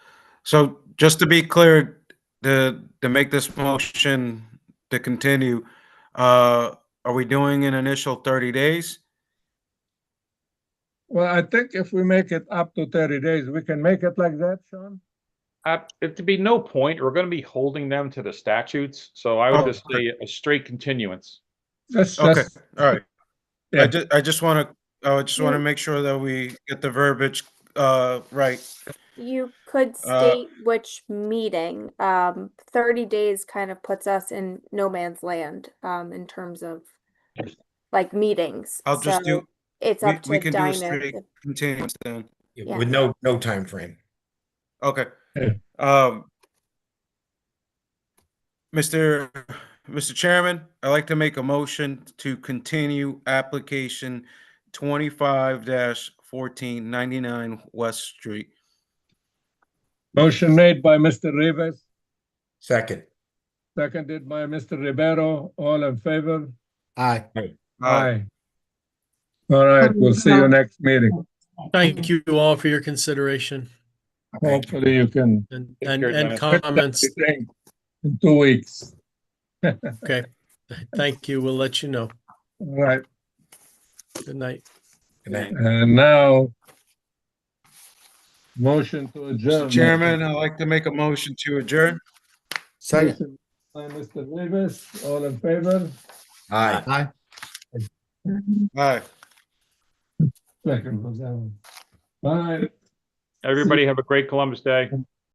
So just to be clear, to, to make this motion to continue, uh, are we doing an initial 30 days? Well, I think if we make it up to thirty days, we can make it like that, Sean? Uh, it'd be no point. We're gonna be holding them to the statutes, so I Oh, would just say a straight continuance. Let's Okay, just, all right. Yeah. I ju- I just want to, I just want to make sure that we get the verbiage, uh, right. You could Uh, state which meeting. Um, thirty days kind of puts us in no man's land, um, in terms of like meetings. I'll just So do, It's we- up we to can do a straight- Diamond. if- continuance then. Yeah. With no, no time frame. Okay. Yeah. Um, Mr. Mr. Chairman, I'd like to make a motion to continue application twenty-five fourteen ninety-nine West Street. motion made by Mr. Rivas, Second. seconded by Mr. Rivero, all in favor? Aye. Aye. All right, we'll see you next meeting. Thank you all for your consideration Thank you. Hopefully you can. and, Take and, care, and Dennis. comments. In two weeks, Okay. Thank you. We'll let you know. All right, Good night. Good night. and now. Motion to adjourn. Mr. Chairman, I'd like to make a motion to adjourn. Second. Motion By Mr. Rivas, all in favor? Aye. Aye. Aye. Second, Roseanne. Bye. Everybody have a great Columbus Day.